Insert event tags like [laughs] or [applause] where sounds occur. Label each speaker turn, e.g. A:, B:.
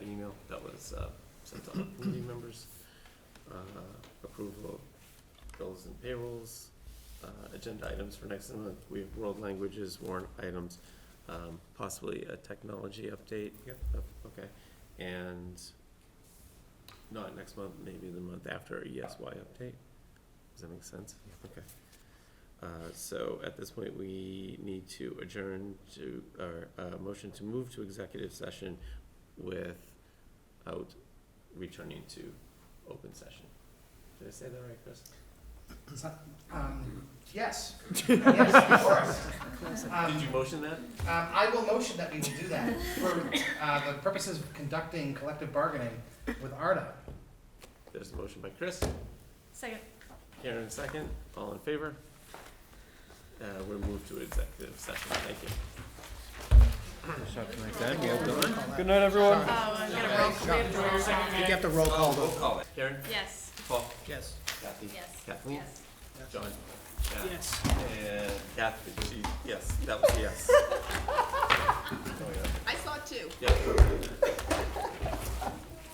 A: it's uh, sent to all committee members. Uh, Approval of bills and payrolls, uh, agenda items for next month. We have world languages, warrant items, um, possibly a technology update. Yep. Okay, and not next month, maybe the month after, a ESY update. Does that make sense? Okay. Uh, So at this point, we need to adjourn to, or uh motion to move to executive session without returning to open session. Did I say that right, Chris?
B: Um, [laughs] Yes, yes, of course. Um,
A: Did you motion that?
B: um, I will motion that we will do that for uh, the purposes of conducting collective bargaining with ARDA.
A: There's a motion by Chris,
C: Second.
A: Karen second, all in favor? Uh, We're moved to executive session, thank you.
D: Good night, everyone.
C: Oh, I'm gonna roll, we have to
B: You have to roll
C: roll call.
B: call though.
A: Oh, call. Karen,
C: Yes,
A: Paul,
B: Yes.
A: Kathy,
C: yes,
A: Kathleen,
C: yes.
A: John.
B: Yes.
A: And Kathy,
C: [laughs]
A: she- yes, that was a yes.
C: I saw two.
A: Oh, Yeah.